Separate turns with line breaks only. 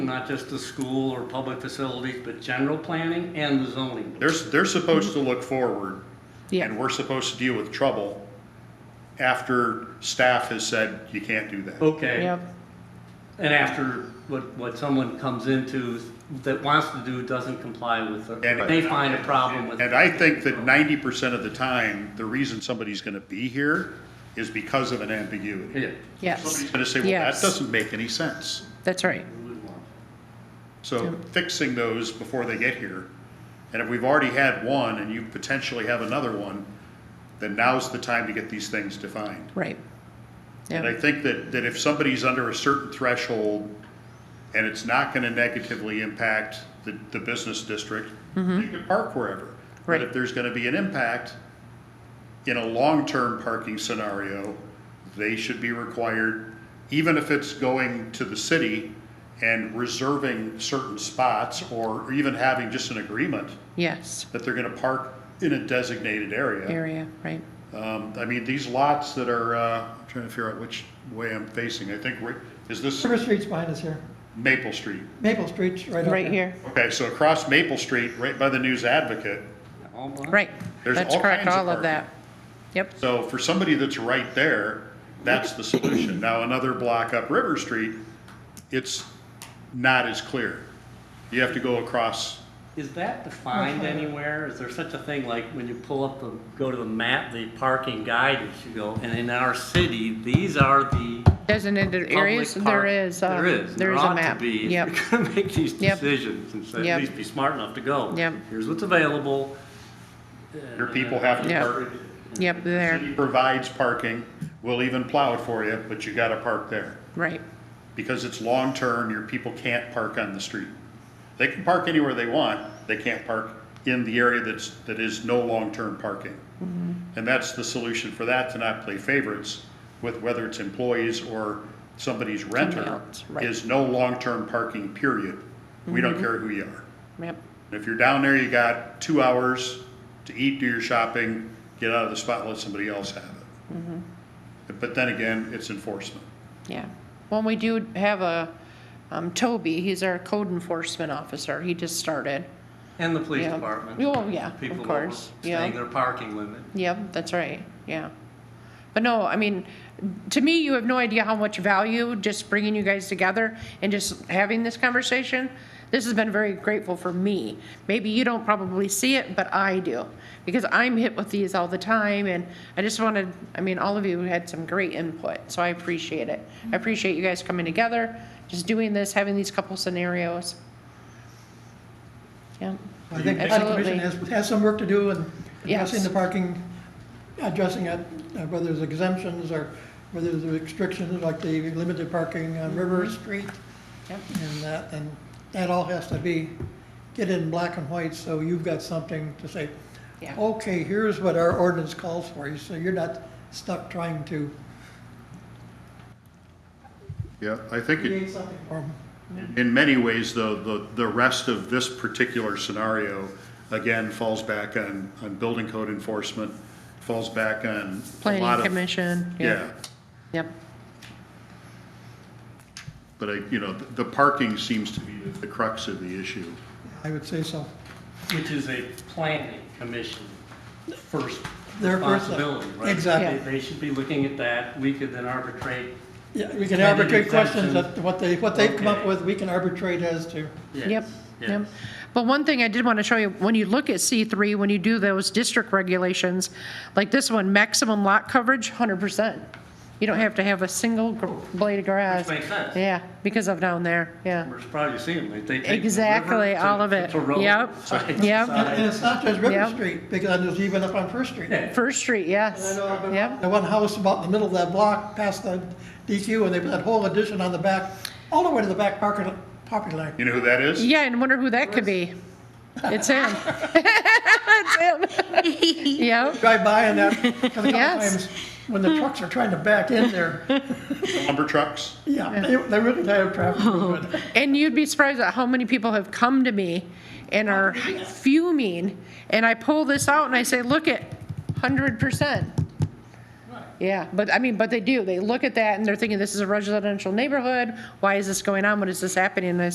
not just the school or public facilities, but general planning and the zoning.
They're, they're supposed to look forward, and
Yeah,
we're supposed to deal with trouble after staff has said, you can't do that.
Okay.
yep,
And after what, what someone comes into that wants to do doesn't comply with, the-
And-
they find a problem with.
And I think that ninety percent of the time, the reason somebody's gonna be here is because of an ambiguity.
Yeah.
yes,
Somebody's gonna say, well, that
Yes.
doesn't make any sense.
that's right.
So fixing those before they get here, and if we've already had one and you potentially have another one, then now's the time to get these things defined.
Right.
And I
Yeah,
think that, that if somebody's under a certain threshold and it's not gonna negatively impact the, the business district, you can park wherever. But if
Mm-hmm. Right.
there's gonna be an impact in a long-term parking scenario, they should be required, even if it's going to the city and reserving certain spots or even having just an agreement
yes,
that they're gonna park in a designated
area, right.
um, I mean, these lots that are, uh, I'm trying to figure out which way I'm facing, I think, we're- is this
River Street's behind us here.
Maple Street?
Maple Street's right up there.
Right here,
Okay, so across Maple Street, right by the News Advocate,
All black.
right.
There's
That's
all
correct,
kinds of
all of that. Yep,
so for somebody that's right there, that's the solution. Now, another block up River Street, it's not as clear. You have to go across,
Is that defined anywhere? Is there such a thing like when you pull up the, go to the map, the parking guidance, you go, and in our city, these are the
designated areas,
public park-
there is, uh,
There is,
there is
ought
a
to
map.
be, if
Yep,
You're gonna make these
Yep.
decisions and say, at
Yep.
least be smart enough to go.
Yep.
Here's what's available.
your people have to
Yeah.
park.
yep, there,
City Provides parking, we'll even plow it for you, but you gotta park there.
right,
because it's long-term, your people can't park on the street. They can park anywhere they want, they can't park in the area that's, that is no long-term parking. And that's the solution for that, to not play favorites with whether it's employees or somebody's renter,
Somebody else, right.
is no long-term parking, period. We don't care who you are.
yep,
And If you're down there, you got two hours to eat, do your shopping, get out of the spot, let somebody else have it. But then again, it's enforcement.
yeah. Well, we do have a, um, Toby, he's our code enforcement officer, he just started.
And the police
Yeah.
department.
Oh, yeah, of
People
course, yeah.
overstaying their parking limit.
Yep, that's right, yeah. But no, I mean, to me, you have no idea how much value just bringing you guys together and just having this conversation. This has been very grateful for me. Maybe you don't probably see it, but I do. Because I'm hit with these all the time and I just wanted, I mean, all of you had some great input, so I appreciate it. I appreciate you guys coming together, just doing this, having these couple scenarios. Yeah,
I think the planning commission has,
Absolutely.
has some work to do in addressing
Yes.
the parking, addressing it, uh, whether there's exemptions or whether there's restrictions like the limited parking on River Street
Mm-hmm. Yep.
and that, and that all has to be, get in black and white, so you've got something to say.
Yeah.
Okay, here's what our ordinance calls for, you so you're not stuck trying to
Yeah, I think it,
create something for them.
In many ways, though, the, the rest of this particular scenario, again, falls back on, on building code enforcement, falls back on a lot
planning
of.
commission, yeah,
Yeah,
yep,
but I, you know, the parking seems to be the crux of the issue.
I would say so.
Which is a planning commission first
Their first-
responsibility, right?
Exactly.
They- They should be looking at that, we could then arbitrate,
Yeah, we can
Maybe
arbitrate
exemptions.
questions that, what they, what they've come up
Okay.
with, we can arbitrate as to.
yes.
Yep, yep.
yes.
But one thing I did want to show you, when you look at C3, when you do those district regulations, like this one, maximum lot coverage, 100%. You don't have to have a single gr- blade of grass.
Which makes sense.
Yeah, because of down there, yeah.
We're proud you see them, they take. the river
Exactly,
to-
all of it.
to road,
Yep,
side to
yep.
side.
And it's not just River
Yep.
Street, because there's even up on First Street.
Yeah.
First Street, yes,
I know I've been-
yep,
The one house about in the middle of that block, past the DQ, and they put that whole addition on the back, all the way to the back parking, property line.
You know who that is?
Yeah, and wonder who that could be. It's him. It's him. Yep,
Drive by and that, 'cause a couple
Yes.
times, when the trucks are trying to back in there,
Lumber trucks?
yeah, they, they really have traffic. movement.
And you'd be surprised at how many people have come to me and are fuming. And I pull this out and I say, look at hundred percent. Yeah, but I mean, but they do. They look at that and they're thinking, this is a residential neighborhood. Why is this going on? What is this happening? And I